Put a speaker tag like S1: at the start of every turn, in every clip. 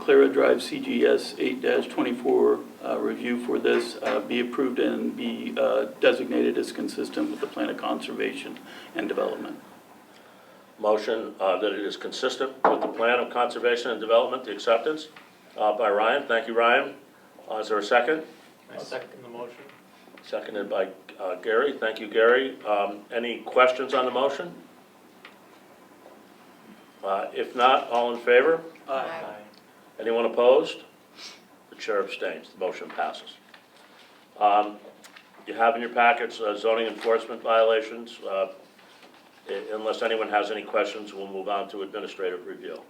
S1: Clara Drive CGS 8-24 uh, review for this uh, be approved and be uh, designated as consistent with the plan of conservation and development.
S2: Motion uh, that it is consistent with the plan of conservation and development, the acceptance uh, by Ryan. Thank you, Ryan. Uh, Is there a second?
S3: I second the motion.
S2: Seconded by uh, Gary. Thank you, Gary. Um, Any questions on the motion? Uh, If not, all in favor?
S1: Aye.
S2: Anyone opposed? The chair abstains, the motion passes. Um, You have in your packets uh, zoning enforcement violations. Uh, i- Unless anyone has any questions, we'll move on to administrative review.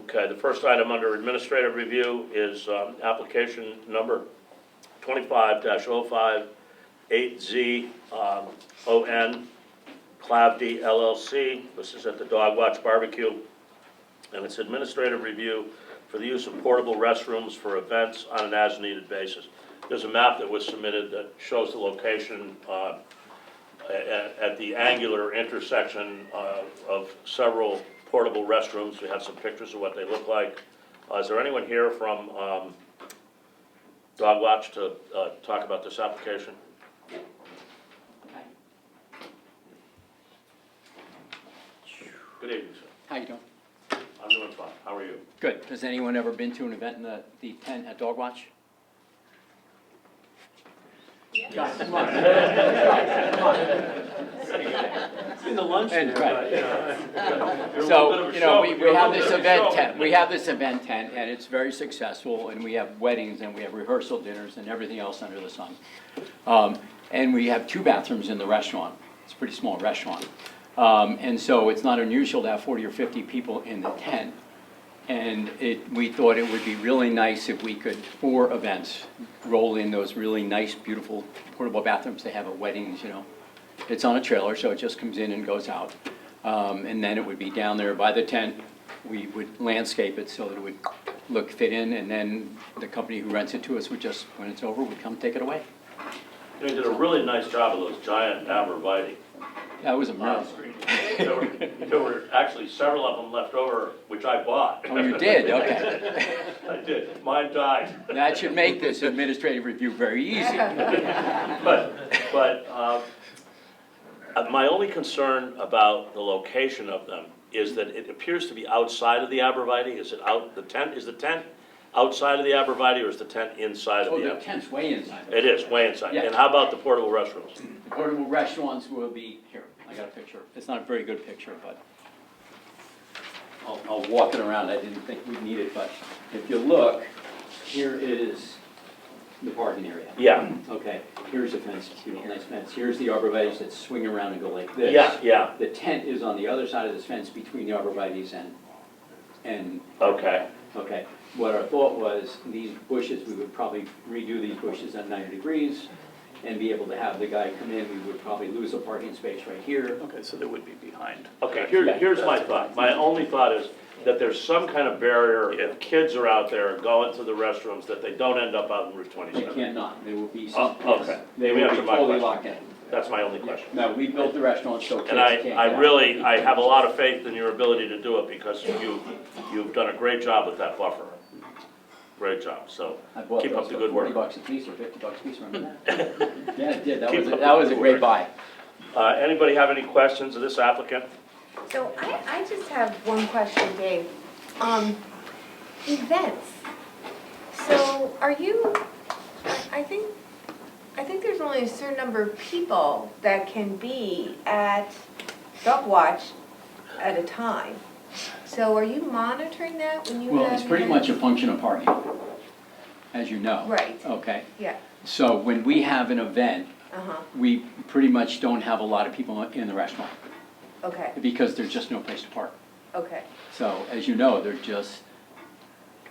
S2: Okay, the first item under administrative review is um, application number um, 25-058Z-ON, Clavdi LLC. This is at the Dog Watch Barbecue and its administrative review for the use of portable restrooms for events on an as-needed basis. There's a map that was submitted that shows the location uh, a- a- at the angular intersection uh, of several portable restrooms. We have some pictures of what they look like. Uh, Is there anyone here from um, Dog Watch to uh, talk about this application? Good evening, sir.
S4: How you doing?
S2: I'm doing fine. How are you?
S4: Good. Has anyone ever been to an event in the, the tent at Dog Watch? Guys, come on.
S2: It's in the lunch.
S4: And,
S2: there,
S4: right.
S2: but, you know, you're a little bit of
S4: So,
S2: a
S4: you know,
S2: show-
S4: we,
S2: you're a
S4: we have
S2: little
S4: this
S2: bit of a
S4: event
S2: show.
S4: tent, we have this event tent, and it's very successful, and we have weddings, and we have rehearsal dinners, and everything else under the sun. Um, and we have two bathrooms in the restaurant, it's a pretty small restaurant. Um, and so it's not unusual to have forty or fifty people in the tent. And it, we thought it would be really nice if we could, for events, roll in those really nice, beautiful portable bathrooms they have at weddings, you know. It's on a trailer, so it just comes in and goes out. Um, and then it would be down there by the tent. We would landscape it so that it would look fit in, and then the company who rents it to us would just, when it's over, would come take it away.
S2: They did a really nice job of those giant abreviate.
S4: That was a miracle.
S2: There were, there were actually several of them left over, which I bought.
S4: Oh, you did, okay.
S2: I did. Mine died.
S4: That should make this administrative review very easy.
S2: But, but, um, uh, my only concern about the location of them is that it appears to be outside of the arborvitae. Is it out, the tent, is the tent outside of the arborvitae or is the tent inside
S4: Oh,
S2: of the
S4: the
S2: arborvitae?
S4: tent's way inside.
S2: It is, way inside. And how about the portable restrooms?
S4: The portable restaurants will be, here, I got a picture. It's not a very good picture, but I'll, I'll walk it around. I didn't think we'd need it, but if you look, here is the parking area.
S2: Yeah,
S4: Okay, here's the fence, you know, nice fence. Here's the arborvitae's that swing around and go like this.
S2: yeah, yeah,
S4: The tent is on the other side of this fence between the arborvitae's and, and
S2: okay.
S4: Okay, what our thought was, these bushes, we would probably redo these bushes at 90 degrees and be able to have the guy come in, we would probably lose a parking space right here.
S1: Okay, so that would be behind.
S2: Okay, here, here's my thought. My only thought is that there's some kind of barrier if kids are out there going to the restrooms, that they don't end up out in Route
S4: They
S2: twenty-seven.
S4: cannot, they will be,
S2: Oh, okay.
S4: yes, they will be
S2: Answer my
S4: totally
S2: question.
S4: locked in.
S2: That's my only question.
S4: No, we built the restaurant so kids
S2: And
S4: can't
S2: I,
S4: get
S2: I
S4: out.
S2: really, I have a lot of faith in your ability to do it because you, you've done a great job with that buffer. Great job, so
S4: I bought
S2: keep
S4: those
S2: up
S4: for
S2: the good
S4: 40
S2: work.
S4: bucks a piece or 50 bucks a piece, remember that? Yeah, it did, that
S2: Keep
S4: was,
S2: up
S4: a- that
S2: the
S4: was a
S2: good work.
S4: great buy.
S2: Uh, anybody have any questions of this applicant?
S5: So I, I just have one question, Dave. Um, events. So are you, I I think, I think there's only a certain number of people that can be at Dog Watch at a time. So are you monitoring that when you have?
S4: Well, it's pretty much
S5: events?
S4: a function of parking, as you know.
S5: Right.
S4: Okay,
S5: Yeah,
S4: so when we have an event,
S5: uh-huh,
S4: we pretty much don't have a lot of people in the restaurant
S5: okay,
S4: because there's just no place to park.
S5: okay,
S4: So as you know, they're just,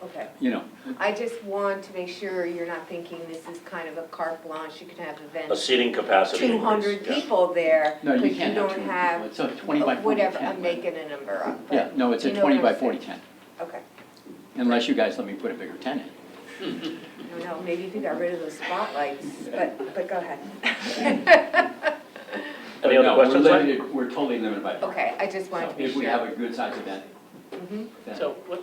S5: okay.
S4: you know,
S5: I just want to make sure you're not thinking this is kind of a carte blanche, you can have
S2: A
S5: events,
S2: seating capacity
S5: two
S2: increase?
S5: hundred
S2: yeah.
S5: people there,
S4: no,
S5: but
S4: you
S5: you
S4: can't have two
S5: don't
S4: people.
S5: have
S4: It's a 20 by 40 tent.
S5: Whatever, I'm
S4: but-
S5: making a number up. but
S4: Yeah, no, it's
S5: you
S4: a
S5: know
S4: 20
S5: what
S4: by
S5: I'm
S4: 40
S5: saying.
S4: tent,
S5: Okay,
S4: unless you guys let me put a bigger tent in.
S5: I don't know, maybe if you got rid of those spotlights, but, but go ahead.
S2: Any
S4: But
S2: other
S4: no,
S2: questions?
S4: We're
S2: sir?
S4: limited, we're totally limited by parking.
S5: Okay, I just wanted
S4: So
S5: to be
S4: if we have
S5: sure.
S4: a good sized event,
S5: Mhm.
S4: then-
S3: So what,